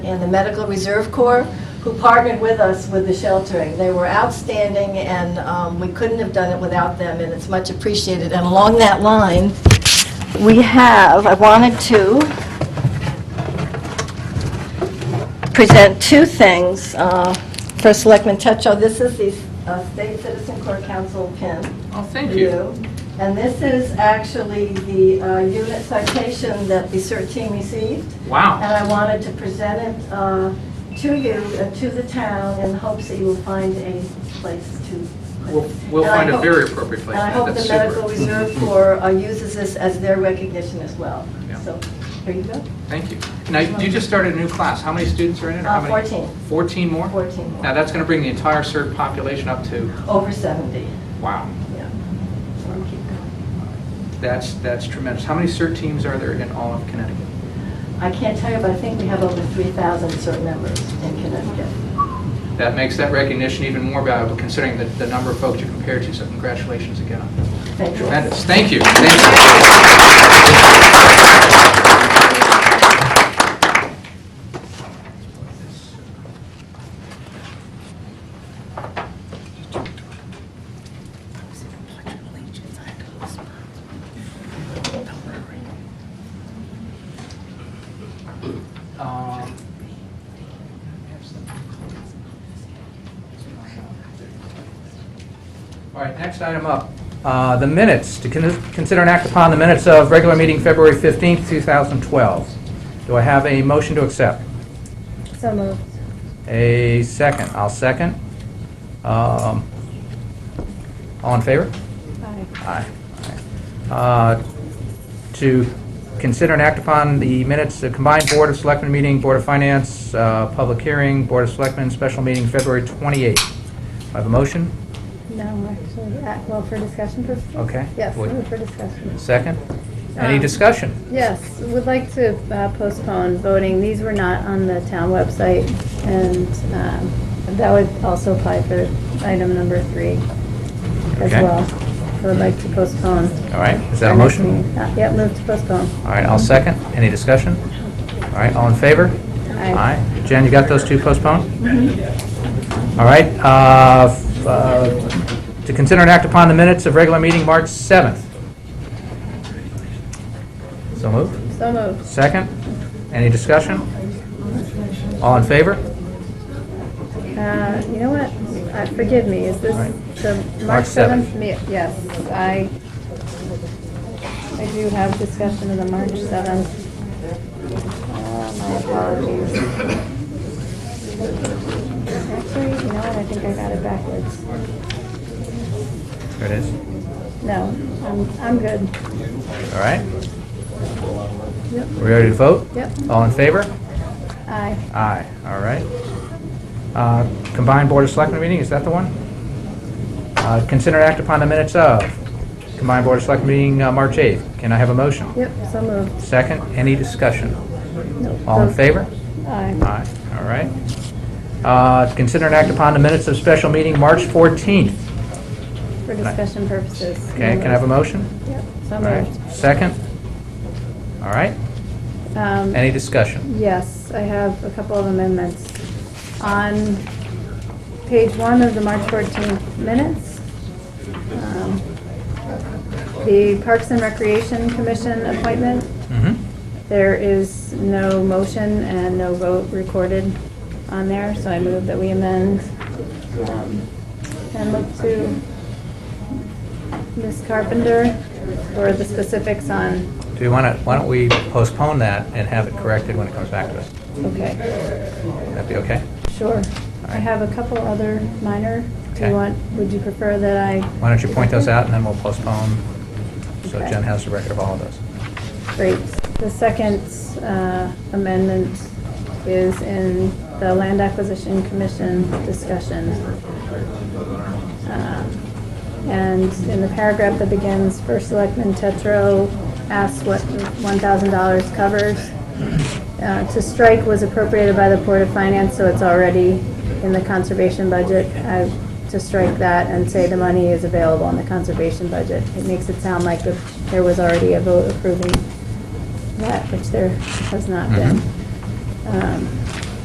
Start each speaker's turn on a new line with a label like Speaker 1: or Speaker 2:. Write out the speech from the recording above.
Speaker 1: and the Medical Reserve Corps, who partnered with us with the sheltering. They were outstanding, and um, we couldn't have done it without them, and it's much appreciated. And along that line, we have, I wanted to present two things. Uh, First Selectman Tetra, this is the uh, State Citizen Corps Council pin.
Speaker 2: Oh, thank
Speaker 1: for
Speaker 2: you.
Speaker 1: And this is actually the uh, unit citation that the CERT team received. And
Speaker 2: Wow.
Speaker 1: I wanted to present it uh, to you, uh, to the town, in hopes that you will find a place to put
Speaker 2: We'll
Speaker 1: it.
Speaker 2: we'll
Speaker 1: And I
Speaker 2: find a
Speaker 1: hope-
Speaker 2: very appropriate place.
Speaker 1: And I hope the
Speaker 2: That's
Speaker 1: Medical
Speaker 2: super.
Speaker 1: Reserve Corps uh, uses this as their recognition as well.
Speaker 2: Yeah.
Speaker 1: So, there you go,
Speaker 2: Thank you. Now, you just started a new class. How many students are in it? or how
Speaker 1: Uh,
Speaker 2: many?
Speaker 1: 14.
Speaker 2: 14 more?
Speaker 1: 14 more.
Speaker 2: Now, that's going to bring the entire CERT population up to,
Speaker 1: over 70,
Speaker 2: wow,
Speaker 1: yeah. So we keep going.
Speaker 2: that's, that's tremendous. How many CERT teams are there in all of Connecticut?
Speaker 1: I can't tell you, but I think we have over 3,000 CERT members in Connecticut.
Speaker 2: That makes that recognition even more valuable considering the, the number of folks you compare to, so congratulations again.
Speaker 1: Thank you.
Speaker 2: Tremendous. Thank you. Thank you. Um, All right, next item up, uh, the minutes, to con- consider and act upon the minutes of regular meeting February 15th, 2012. Do I have a motion to accept?
Speaker 3: So moved.
Speaker 2: A second, I'll second. Um, All in favor? Aye. Aye. Uh, To consider and act upon the minutes, the combined Board of Selectmen meeting, Board of Finance, uh, public hearing, Board of Selectmen, special meeting February 28th. Do I have a motion?
Speaker 3: No, actually, uh, well, for discussion purposes?
Speaker 2: Okay.
Speaker 3: Yes,
Speaker 2: Would-
Speaker 3: move for discussion.
Speaker 2: Second? Any
Speaker 3: Um,
Speaker 2: discussion?
Speaker 3: Yes, would like to uh, postpone voting. These were not on the town website, and um, that would also apply for item number three as
Speaker 2: Okay.
Speaker 3: well. I Would like to postpone.
Speaker 2: All right, is that a
Speaker 3: our next
Speaker 2: motion?
Speaker 3: meeting. Uh, Yeah, move to postpone.
Speaker 2: All right, I'll second. Any discussion? All right, all in favor?
Speaker 3: Aye.
Speaker 2: Jen, you got those two postponed?
Speaker 3: Mm-hmm.
Speaker 2: All right, uh, f- uh, to consider and act upon the minutes of regular meeting March 7th. So moved.
Speaker 3: So moved.
Speaker 2: Second? Any discussion? All in favor?
Speaker 3: Uh, You know what? Uh, Forgive me, is this
Speaker 2: Right.
Speaker 3: the
Speaker 2: March
Speaker 3: March
Speaker 2: 7th.
Speaker 3: 7th? me- Yes, I, I do have discussion of the March 7th. Uh, My apologies. Actually, you know what, I think I got it backwards.
Speaker 2: There it is.
Speaker 3: No, I'm, I'm good.
Speaker 2: All right,
Speaker 3: Yep,
Speaker 2: we ready to vote?
Speaker 3: Yep.
Speaker 2: All in favor?
Speaker 3: aye.
Speaker 2: Aye, all right. Uh, Combined Board of Selectmen meeting, is that the one? Uh, Consider and act upon the minutes of Combined Board of Selectmen meeting, uh, March 8th. Can I have a motion?
Speaker 3: Yep, so moved.
Speaker 2: Second, any discussion?
Speaker 3: Nope,
Speaker 2: All in
Speaker 3: those-
Speaker 2: favor?
Speaker 3: Aye.
Speaker 2: Aye, all right. Uh, Consider and act upon the minutes of special meeting, March 14th.
Speaker 3: For discussion purposes.
Speaker 2: Okay, can I have a motion?
Speaker 3: Yep, so
Speaker 2: All right,
Speaker 3: moved.
Speaker 2: second? All right,
Speaker 3: Um,
Speaker 2: any discussion?
Speaker 3: Yes, I have a couple of amendments. On page one of the March 14th minutes, um, the Parks and Recreation Commission appointment,
Speaker 2: Mhm.
Speaker 3: there is no motion and no vote recorded on there, so I move that we amend um, and look to Ms. Carpenter for the specifics on,
Speaker 2: Do we want to, why don't we postpone that and have it corrected when it comes back to us?
Speaker 3: okay.
Speaker 2: Would that be okay?
Speaker 3: Sure. I
Speaker 2: right.
Speaker 3: have a couple other minor. Do
Speaker 2: Okay.
Speaker 3: you want, would you prefer that I?
Speaker 2: Why don't you point those out, and then we'll postpone, so
Speaker 3: Okay.
Speaker 2: Jen has the record of all of those.
Speaker 3: Great. The second uh, amendment is in the Land Acquisition Commission discussion. Um, And in the paragraph that begins, First Selectman Tetro asks what $1,000 covers. Uh, To strike was appropriated by the Board of Finance, so it's already in the conservation budget. I- To strike that and say the money is available in the conservation budget. It makes it sound like the- there was already a vote approving that, which there has not been.
Speaker 2: Mhm.
Speaker 3: Um,